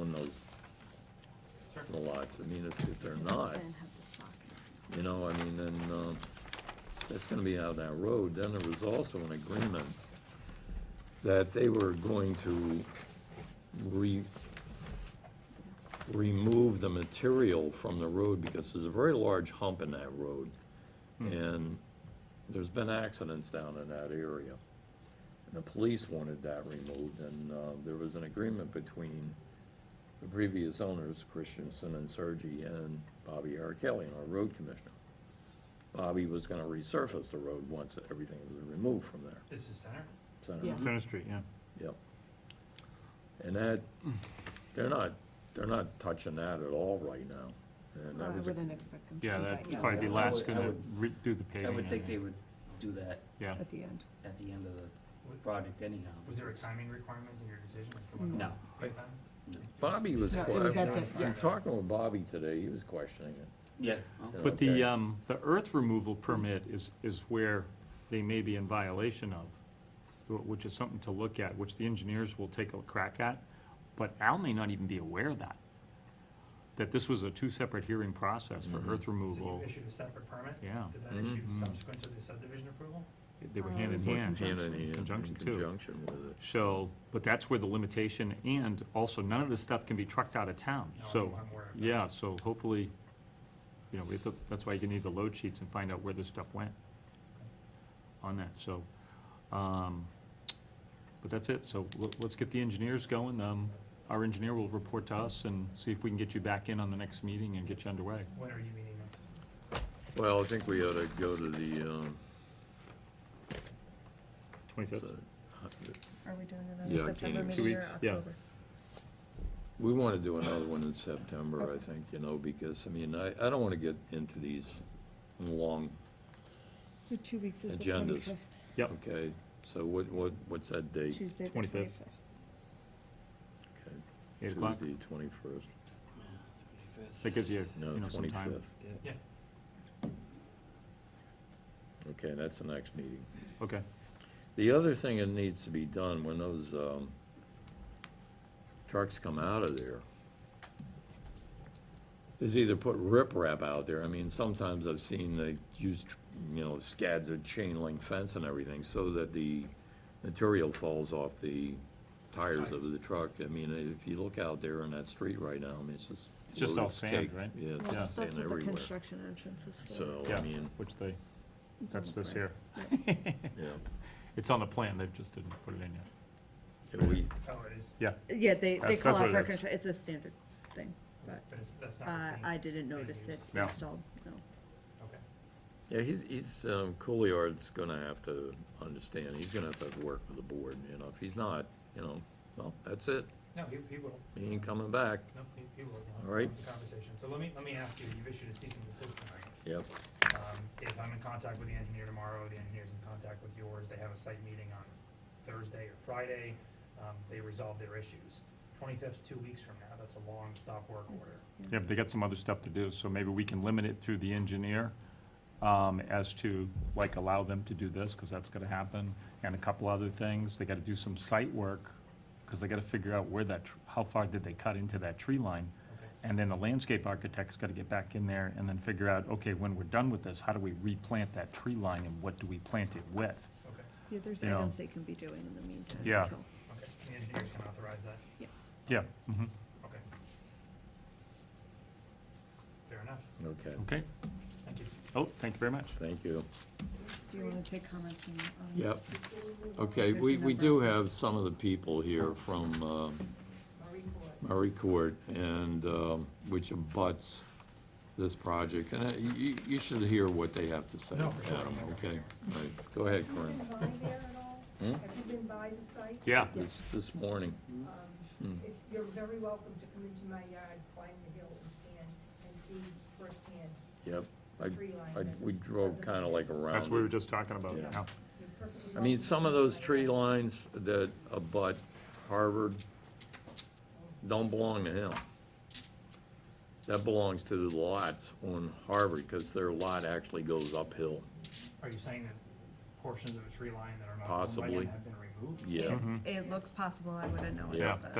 on those, the lots. I mean, if, if they're not, Then have the sock. you know, I mean, then, uh, that's gonna be out of that road. Then there was also an agreement that they were going to re, remove the material from the road because there's a very large hump in that road. And there's been accidents down in that area. And the police wanted that removed, and, uh, there was an agreement between the previous owners, Christensen and Sergi, and Bobby R. Kelly, our road commissioner. Bobby was gonna resurface the road once everything was removed from there. This is center? Center. Yeah. Center Street, yeah. Yep. And that, they're not, they're not touching that at all right now. And I that was, a- wouldn't expect them to do Yeah, that that'd yet. probably be I last would- I gonna would- re- do the I paving. would think and- they would do that Yeah, At the end. at the end of the Was- project anyhow. Was there a timing requirement in your decision as to when? No. Okay, No. Bobby was, No, it was at I'm the- yeah. talking with Bobby today, he was questioning it. Yeah. well, you know, but the, Oh, okay. um, the earth removal permit is, is where they may be in violation of, wh- which is something to look at, which the engineers will take a crack at, but Al may not even be aware of that, that this was a two separate hearing process for Mm-hmm. earth So removal. you issued a separate permit? Yeah. Did that issue Mm-hmm. subsequent to the subdivision approval? They were Um, hand in Working hand, Hand in in hand, conjunction In too. conjunction with it. So, but that's where the limitation, and also, none of this stuff can be trucked out of town, No, so. I'm aware of that. Yeah, so hopefully, you know, we have to, that's why you need the load sheets and find out where this stuff went on that, so. um, But that's it, so le- let's get the engineers going. Um, Our engineer will report to us and see if we can get you back in on the next meeting and get you underway. When are you meeting next? Well, I think we ought to go to the, um, Twenty-fifth? Are we doing Yeah, I September can't- Two meeting or weeks, yeah. October? we want to do another one in September, I think, you know, because, I mean, I, I don't want to get into these long, So two weeks is the Agendas. twenty-fifth, Yep, okay? So what, what, what's that date? Tuesday, the 25th. twenty-fifth. Okay, eight o'clock. Tuesday, twenty-first, That gives you, no, you know, some time. twenty-fifth. Yeah. Okay, that's the next meeting. Okay, The other thing that needs to be done when those, um, trucks come out of there is either put riprap out there. I mean, sometimes I've seen they use, tr- you know, scads of chain link fence and everything so that the material falls off the tires of the truck. I mean, if you look out there on that street right now, I mean, it's just. It's just all loaded sand, cake. right? Yeah, it's Yeah. just sand everywhere. entrance is So, Oh, I yeah, mean, which they, It's that's on the this plan. here. yeah, It's on the plan, they just didn't put it in yet. Yeah, we, Oh, it is, Yeah, Yeah, they, they That's- call that's out what for it a is. constru- it's a standard thing, but, but it's, that's not. uh, what's being- I didn't notice it used. No. installed, no. Okay. Yeah, he's, he's, um, Couilliard's gonna have to understand, he's gonna have to work with the board, you know, if he's not, you know, well, that's it, No, he, he will, he ain't coming back, no, he, he will. We'll have All right. the Conversation. So let me, let me ask you, you've issued a cease and desist tonight. yep. Um, If I'm in contact with the engineer tomorrow, the engineer's in contact with yours, they have a site meeting on Thursday or Friday, um, they resolve their issues. Twenty-fifth's two weeks from now, that's a long stop work order. yeah, but they got some other stuff to do, so maybe we can limit it through the engineer um, as to, like, allow them to do this, because that's gonna happen, and a couple other things. They gotta do some site work, because they gotta figure out where that, tr- how far did they cut into that tree line? Okay. And then the landscape architect's gotta get back in there and then figure out, okay, when we're done with this, how do we replant that tree line and what do we plant it with? Okay, Yeah, there's You know. items they can be doing in the meantime. Yeah. until- okay, the engineers can authorize that, Yeah, mhm, okay. Fair enough, Okay, okay. thank you. Oh, thank you very much. thank you. Do you wanna take comments from? um, Yep, okay, we, we do have some of the people here from, um, Murray Court, and, um, which abuts this project, and uh, you- you, you should hear what they have to say, No, for sure. Adam, okay? All right, go ahead, Have you Corinne. been by there at all? Hmm? Have you been by the site? Yeah, This, this morning, Um, Hmm. if- You're very welcome to come into my yard, climb the hill and stand and see firsthand yep, I, the tree line. I, and we drove doesn't kinda like exist. around. that's what we were it. just talking about, Yeah. yeah. You're perfectly I mean, welcome some of to come those by tree my yard. lines that abut Harvard don't belong to him. That belongs to the lots on Harvard, because their lot actually goes uphill. Are you saying that portions of a tree line that are not owned by Possibly. him have been removed? Mm-hmm. Yeah. It looks possible, I wouldn't know Yeah. about that.